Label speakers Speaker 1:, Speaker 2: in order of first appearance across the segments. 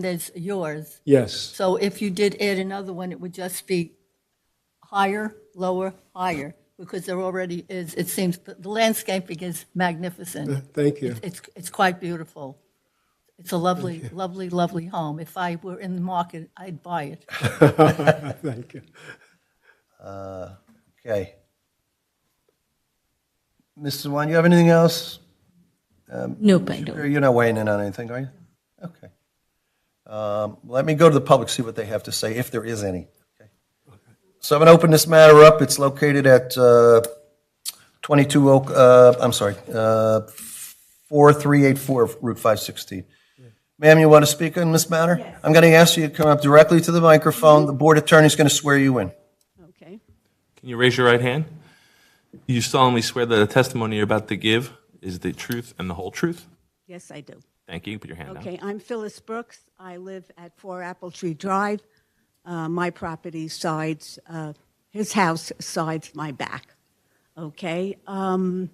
Speaker 1: There's yours.
Speaker 2: Yes,
Speaker 1: So if you did add another one, it would just be higher, lower, higher, because there already is, it seems, but the landscaping is magnificent.
Speaker 2: thank you.
Speaker 1: It's, it's quite beautiful. It's a lovely, lovely, lovely home. If I were in the market, I'd buy it.
Speaker 2: Thank you.
Speaker 3: Okay. Mrs. Wan, you have anything else?
Speaker 4: Nope, I don't.
Speaker 3: You're not weighing in on anything, are you? Okay. Um, Let me go to the public, see what they have to say, if there is any. Okay. So I'm going to open this matter up. It's located at uh, 22 Oak, uh, I'm sorry, uh, 4384 Route 516. Ma'am, you want to speak on this matter? I'm going to ask you to come up directly to the microphone. The board attorney's going to swear you in.
Speaker 4: Okay.
Speaker 5: Can you raise your right hand? You solemnly swear that the testimony you're about to give is the truth and the whole truth?
Speaker 4: Yes, I do.
Speaker 5: Thank you. Put your hand down.
Speaker 4: Okay, I'm Phyllis Brooks. I live at 4 Apple Tree Drive. Uh, my property sides, uh, his house sides my back. Okay. Um,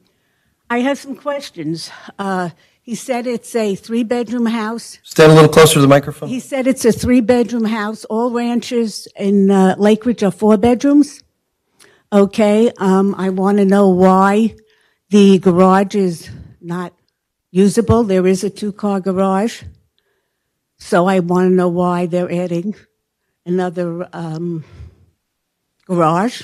Speaker 4: I have some questions. Uh, he said it's a three bedroom house.
Speaker 3: Stand a little closer to the microphone.
Speaker 4: He said it's a three bedroom house. All ranches in uh, Lakeridge are four bedrooms. Okay, um, I want to know why the garage is not usable. There is a two car garage. So I want to know why they're adding another um, garage,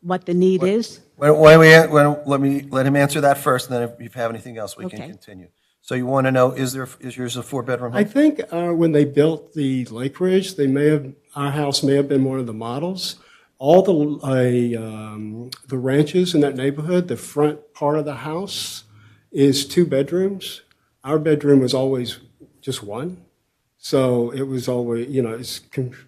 Speaker 4: what the need is.
Speaker 3: Why why don't we, why don't- let me, let him answer that first, and then if you have anything else, we can
Speaker 4: Okay.
Speaker 3: continue. So you want to know, is there, is yours a four-bedroom
Speaker 2: I
Speaker 3: home?
Speaker 2: think uh, when they built the Lake Ridge, they may have, our house may have been one of the models. All the, uh, um, the ranches in that neighborhood, the front part of the house is two bedrooms. Our bedroom was always just one. So it was always, you know, it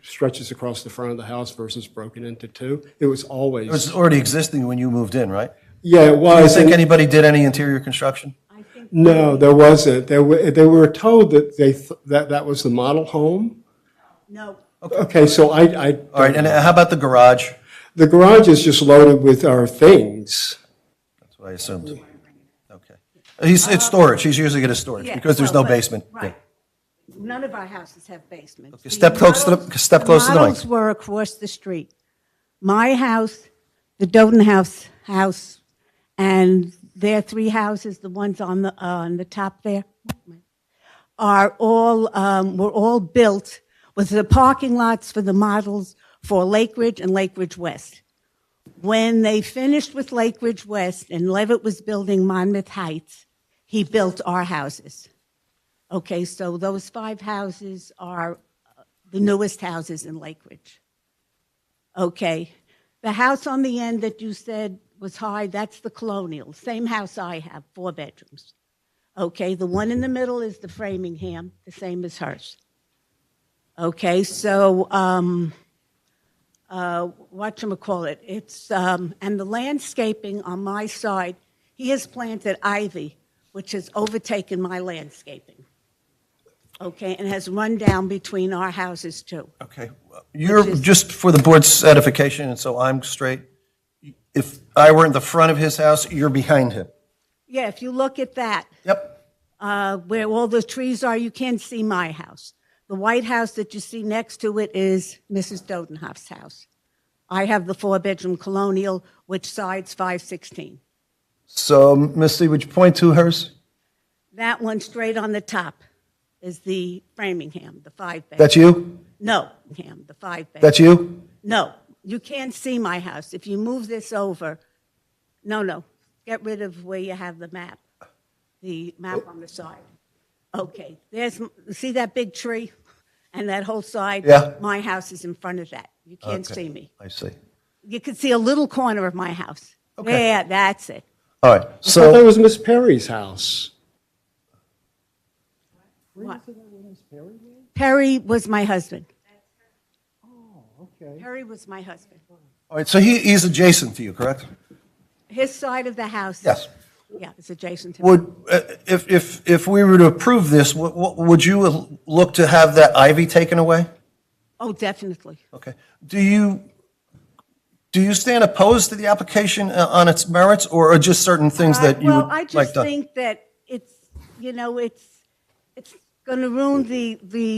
Speaker 2: stretches across the front of the house versus broken into two. It was always,
Speaker 3: It was already existing when you moved in, right?
Speaker 2: yeah, it
Speaker 3: Do you
Speaker 2: was.
Speaker 3: think
Speaker 2: and-
Speaker 3: anybody did any interior construction?
Speaker 2: No, there wasn't. They were, they were told that they, th- that that was the model home.
Speaker 4: No.
Speaker 2: Okay, so I, I.
Speaker 3: All right, and how about the garage?
Speaker 2: The garage is just loaded with our things.
Speaker 3: That's what I assumed. Okay. He's, it's storage, he's usually going to storage,
Speaker 4: Uh, Yeah,
Speaker 3: because there's no
Speaker 4: well, but-
Speaker 3: basement.
Speaker 4: Right. None of our houses have basements.
Speaker 3: Okay, step close to the-
Speaker 4: models-
Speaker 3: step close to the mic.
Speaker 4: models were across the street. My house, the Doden House house, and their three houses, the ones on the, uh, on the top there, are all, um, were all built with the parking lots for the models for Lake Ridge and Lake Ridge West. When they finished with Lake Ridge West and Levitt was building Monmouth Heights, he built our houses. Okay, so those five houses are uh, the newest houses in Lake Ridge. Okay, the house on the end that you said was high, that's the colonial, same house I have, four bedrooms. Okay, the one in the middle is the Framingham, the same as hers. Okay, so, um, uh, whatchamacallit, it's, um, and the landscaping on my side, he has planted ivy, which has overtaken my landscaping. Okay, and has run down between our houses too.
Speaker 3: Okay. You're, just for the board's edification, and so I'm straight, if I were in the front of his house, you're behind him.
Speaker 4: Yeah, if you look at that,
Speaker 3: Yep.
Speaker 4: uh, where all the trees are, you can't see my house. The white house that you see next to it is Mrs. Dodenhoff's house. I have the four-bedroom colonial, which sides 516.
Speaker 3: So, Ms. Lee, would you point to hers?
Speaker 4: That one straight on the top is the Framingham, the five-bedroom.
Speaker 3: That's you?
Speaker 4: No, Ham, the five-bedroom.
Speaker 3: That's you?
Speaker 4: No, you can't see my house. If you move this over, no, no, get rid of where you have the map, the
Speaker 3: Oh.
Speaker 4: map on the side. Okay, there's, see that big tree and that whole side?
Speaker 3: Yeah.
Speaker 4: My house is in front of that. You can't see me.
Speaker 3: I see.
Speaker 4: You can see a little corner of my house.
Speaker 3: Okay.
Speaker 4: Yeah, that's it.
Speaker 3: All right,
Speaker 2: I thought that
Speaker 3: so,
Speaker 2: was Miss Perry's house.
Speaker 4: What? Perry was my husband. Oh, okay. Perry was my husband.
Speaker 3: all right, so he, he's adjacent to you, correct?
Speaker 4: His side of the house.
Speaker 3: Yes.
Speaker 4: Yeah, it's adjacent to.
Speaker 3: Would, uh, if, if, if we were to approve this, wo- wo- would you look to have that ivy taken away?
Speaker 4: Oh, definitely.
Speaker 3: Okay. Do you, do you stand opposed to the application uh, on its merits, or are just certain things
Speaker 4: I-
Speaker 3: that you
Speaker 4: Uh, well,
Speaker 3: would
Speaker 4: I
Speaker 3: like
Speaker 4: just
Speaker 3: done?
Speaker 4: think that it's you know it's it's going to ruin the, the